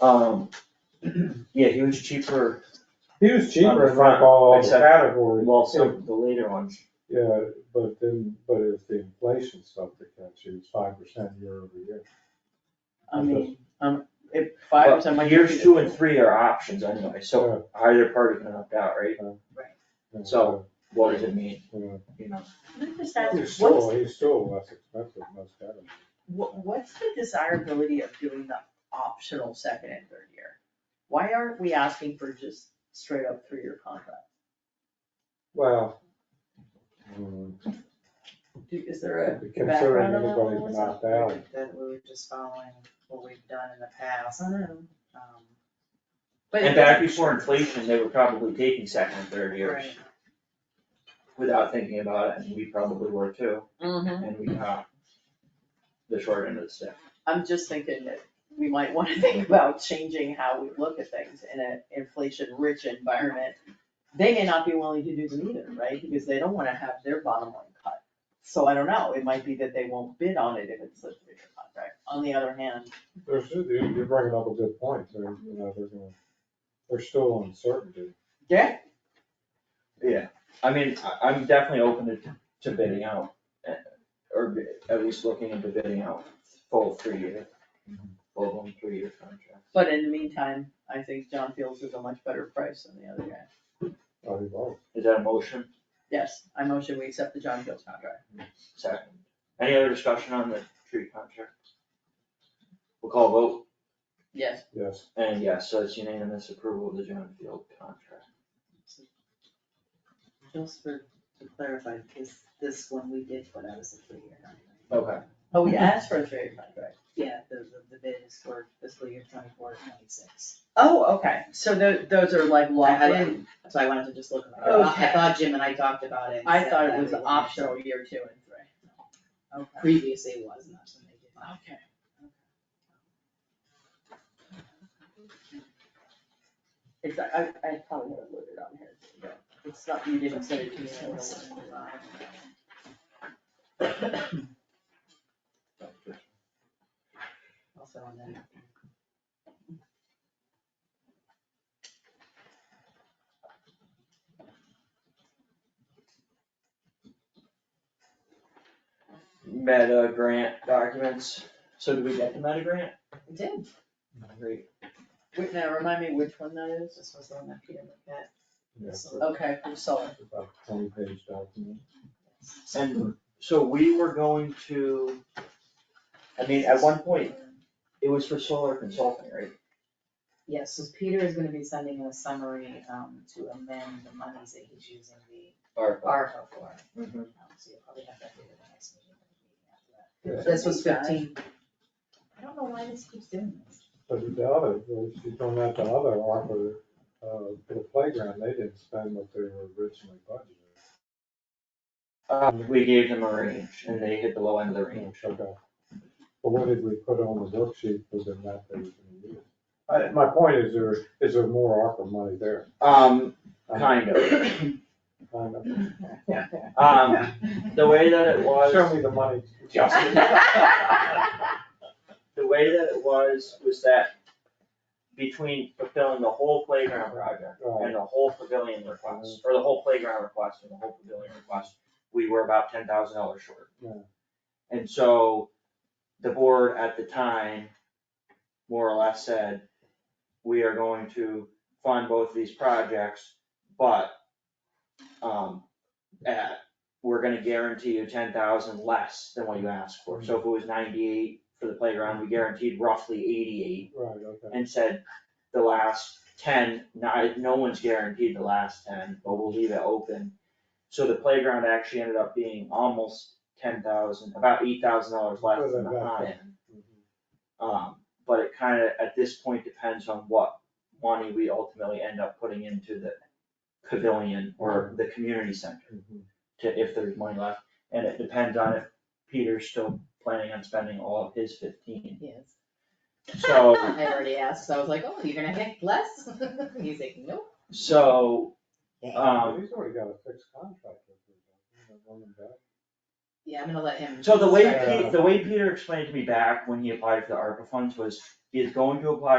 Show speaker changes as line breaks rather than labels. Um, yeah, he was cheaper,
He was cheaper in like
Front,
all the
except-
categories.
well, so the later ones.
Yeah, but then, but it's the inflation stuff that catch you, it's five percent year over year.
I mean, um, if five percent
But
might.
Years two and three are options anyway, so either party can opt out, right?
And
So- What does it mean,
yeah.
you know?
Let me just ask,
He's
what's,
still, he's still less expensive than most categories.
What, what's the desirability of doing the optional second and third year? Why aren't we asking for just straight up three-year contract?
Well. mm,
Do, is there a
Considering
background on that one?
everybody's knocked out,
That we were just following what we've done in the past,
I don't know.
um,
But
And back before inflation, they were probably taking second and third years
right,
without thinking about it, and we probably were too,
Mhm.
and we got the short end of the stick.
I'm just thinking that we might wanna think about changing how we look at things in an inflation-rich environment. They may not be willing to do them either, right, because they don't wanna have their bottom line cut. So I don't know, it might be that they won't bid on it if it's a three-year contract. On the other hand,
there's, you- you're bringing up a good point, they're, you know, they're gonna, they're still uncertainty.
yeah,
I mean, I, I'm definitely open to, to bidding out, eh, or bi- at least looking into bidding out full three year, full blown three year contract.
but in the meantime, I think John Fields is a much better price than the other guy.
Oh, he was.
Is that a motion?
Yes, I motion we accept the John Fields contract.
Second. Any other discussion on the tree contract? We'll call vote.
Yes,
yes.
And yes, so it's unanimous approval of the John Field contract.
just for, to clarify, because this one we did put out as a three-year contract.
Okay.
oh, we asked for a three-year contract.
Yeah, the, the- the bid is for fiscal year twenty-four, twenty-six,
Oh, okay, so tho- those are like locked
had-
in,
so I wanted to just look, I thought- I
Okay.
thought Jim and I talked about it. and
I
said
thought
that
it was
we wanted to-
optional year two and three. Okay.
Previously it was, and that's when they did. it.
Okay. It's, I, I I probably would have looked it on here, but it's not, you didn't send it to me. so I don't know.
Also on that.
Meta grant documents. So did we get the meta grant?
It did,
Great.
Wait, now remind me which one that is?
this was the one that Peter looked at.
Yeah,
Okay, from solar.
about twenty page document.
And so we were going to, I mean, at one point, it was for solar consulting, right?
Yes, so Peter is gonna be sending a summary, um, to amend the monies that he's using the
Or
ARPA for.
Mhm.
Um, So you'll probably have that for the next meeting. or the meeting after that.
Yeah.
This was fifteen. I don't know why this keeps doing this.
But the other, she's done that to other ARPA, uh, for the playground, they didn't spend what they were originally budgeted.
Uh, we gave them a range and they hit the low end of the range.
Okay. But what did we put on the worksheet for the map they were gonna use? I, my point is there, is there more ARPA money there?
Um,
I mean,
kind of.
kind of.
Um, the way that it was.
Show me the money.
the way that it was, was that between fulfilling the whole playground project and the whole pavilion request, or the whole playground request and the whole pavilion request, we were about ten thousand dollars short.
Yeah.
And so the board at the time more or less said, we are going to fund both of these projects, but um, at, we're gonna guarantee you ten thousand less than what you asked for. So if it was ninety-eight for the playground, we guaranteed roughly eighty-eight
Right, okay.
and said the last ten, no, no one's guaranteed the last ten, but we'll leave it open. So the playground actually ended up being almost ten thousand, about eight thousand dollars less than the high end.
Mhm.
Um, but it kinda, at this point, depends on what money we ultimately end up putting into the pavilion or the community center,
Mhm.
to, if there's money left. And it depends on if Peter's still planning on spending all of his fifteen,
Yes.
so.
I already asked, so I was like, oh, you're gonna get less? He's like, nope.
So,
But
um,
He's already got a fixed contract with them, you know, running back.
Yeah, I'm gonna let him.
so the way,
start.
Pe- the way Peter explained to me back when he applied for the ARPA funds was, he is going to apply